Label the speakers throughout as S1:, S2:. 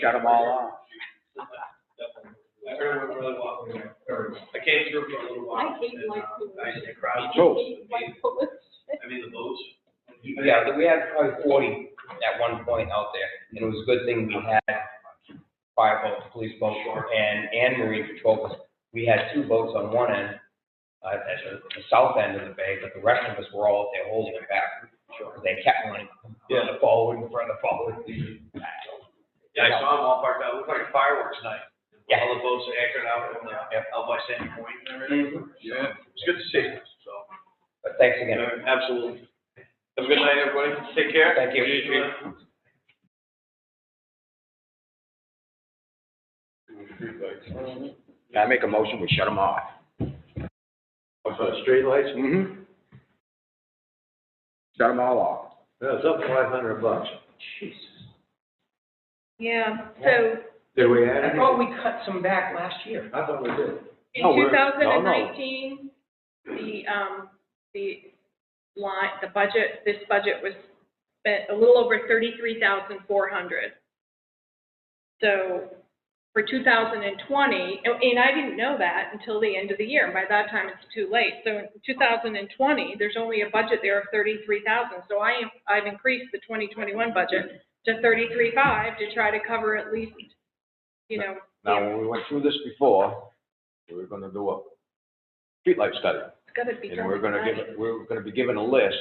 S1: shut them all off.
S2: I heard it went really well. I came through for a little while.
S3: I hate
S2: and, uh,
S3: light blue.
S2: I the crowd.
S1: So-
S3: Oh.
S2: I mean, the boats.
S1: Yeah, we had probably forty at one point out there, and it was a good thing we had fire boats, police boats, and, and marine patrol. boats. We had two boats on one end, uh, at the, the south end of the bay, but the rest of us were all out there holding it back. Because they kept running, further forward, further forward.
S2: Yeah, I saw them all parked out. It looked like fireworks night.
S1: Yeah.
S2: All the boats anchored out on the,
S1: Yep.
S2: out by Sandy Point and
S1: Mm-hmm.
S2: everything. Yeah. It's good to see, them, so.
S1: But thanks again.
S2: Yeah, Absolutely. Have a good night, everybody. Take care.
S1: Thank you. I make a motion, we shut them off.
S4: For the streetlights?
S1: Mm-hmm. Shut them all off.
S4: Yeah, it's up five hundred bucks.
S3: Yeah, so
S4: Did we add
S1: I
S4: any?
S1: thought we cut some back last year.
S4: I thought we did.
S3: in
S4: No,
S3: two
S4: we're-
S3: thousand
S4: no,
S3: and
S4: no.
S3: nineteen, the, um, the line, the budget, this budget was spent a little over thirty-three thousand four hundred. So for two thousand and twenty, and and I didn't know that until the end of the year. and By that time, it's too late. So in two thousand and twenty, there's only a budget there of thirty-three thousand. So I am, I've increased the twenty twenty-one budget to thirty-three five to try to cover at least, you know,
S4: Now, when we went through this before, we were gonna do a streetlight study.
S3: it's gotta be.
S4: And we're
S3: done
S4: gonna
S3: tonight.
S4: give, we're gonna be given a list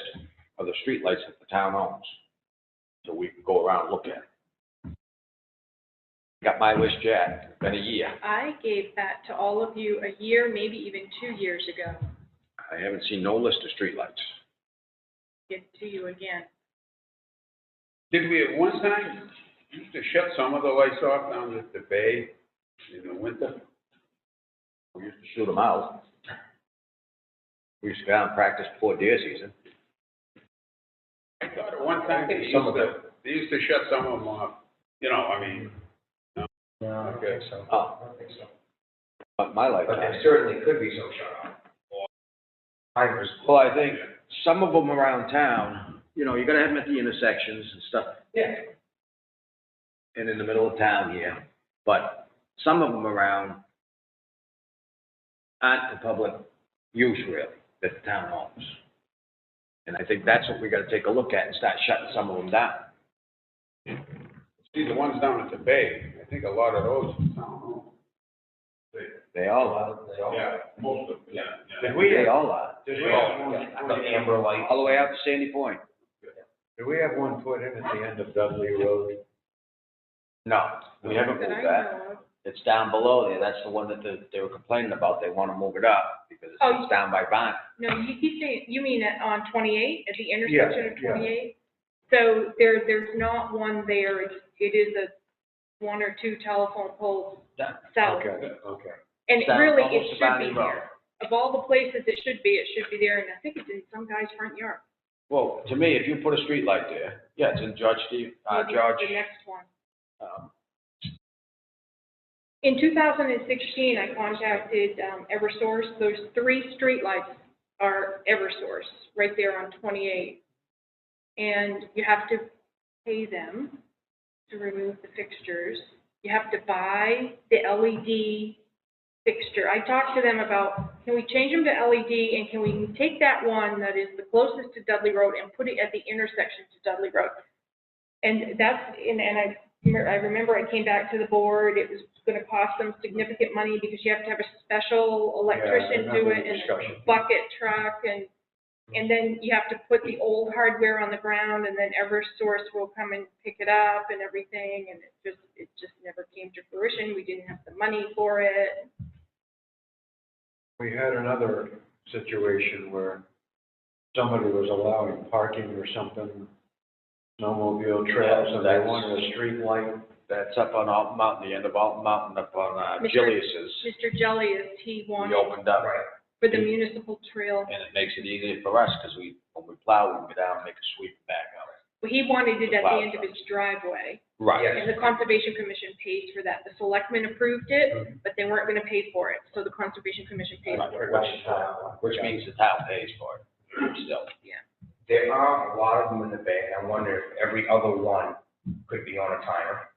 S4: of the streetlights that the town owns. So we can go around and look at. it. Got my list, Jack, been a year.
S3: I gave that to all of you a year, maybe even two years ago.
S4: I haven't seen no list of streetlights.
S3: Give it to you again.
S5: Did we at one time used to shut some of the lights off down at the bay in the winter?
S4: We used to shoot them out. We used to go out and practice before deer season.
S5: I thought at one time they used
S4: Some of
S5: to, they used to shut some of them off, you know, I mean,
S1: No, I don't think so.
S4: Oh.
S1: I don't think so.
S4: But my
S1: But
S4: lifetime.
S1: there certainly could be some shut off. Or Timers.
S4: Well, I think some of them around town, you know, you gotta have them at the intersections and stuff,
S1: Yeah.
S4: and in the middle of town here, but some of them around aren't for public use really, that the town owns. And I think that's what we gotta take a look at and start shutting some of them down.
S5: see the ones down at the bay, I think a lot of those, I don't know.
S4: They all are.
S5: Yeah, most of, them, yeah, yeah.
S4: Did we? They all are,
S2: Did
S5: we all-
S1: The amber light.
S4: all the way out to Sandy Point.
S6: Do we have one put in at the end of Dudley Road?
S4: No, we haven't
S3: That I
S4: moved that.
S3: know of.
S4: It's down below there, that's the one that they, they were complaining about, they wanna move it up, because
S3: Oh.
S4: it's down by Vine.
S3: No, you, you say, you mean at, on twenty-eight, at the intersection of
S6: yeah.
S3: twenty-eight? So there, there's not one there. It's- It is a one or two telephone poles
S4: Yeah,
S3: south.
S6: Okay, okay.
S3: And
S4: Down
S3: really,
S4: almost
S3: it
S4: to
S3: should
S4: Bonnie
S3: be
S4: Road.
S3: there. Of all the places it should be, it should be there. And I think it's in some guy's front yard.
S4: Well, to me, if you put a street light there, yeah, it's in George Steve, uh,
S3: Maybe
S4: George,
S3: The next one.
S4: um,
S3: In 2016, I contacted um, Eversource. Those three streetlights are Eversource, right there on 28. And you have to pay them to remove the fixtures. You have to buy the LED fixture. I talked to them about, can we change them to LED and can we take that one that is the closest to Dudley Road and put it at the intersection to Dudley Road? And that's, and, and I remember- I remember I came back to the board, it was gonna cost them significant money because you have to have a special electrician do it and a bucket truck and, and then you have to put the old hardware on the ground and then Eversource will come and pick it up and everything and it just, it just never came to fruition. We didn't have the money for it.
S6: We had another situation where somebody was allowing parking or something, snowmobile trails, and they
S4: That's-
S6: wanted a street light.
S4: that's up on Alton Mountain, the end of Alton Mountain, up on, uh,
S3: Mr.
S4: Julius's.
S3: Mr. Jelly is, he
S4: We
S3: wanted
S4: opened up,
S3: for the municipal trail,
S4: and it makes it easier for us, because we, when we plow, we can go down and make a sweep back up.
S3: he wanted it at the end of his driveway.
S4: Right.
S3: And the Conservation Commission pays for that. The selectmen approved it, but they weren't gonna pay for it, so the Conservation Commission paid for it.
S4: Which- Which means the town pays for it, still.
S1: There are a lot of them in the bay, and I wonder if every other one could be on a timer.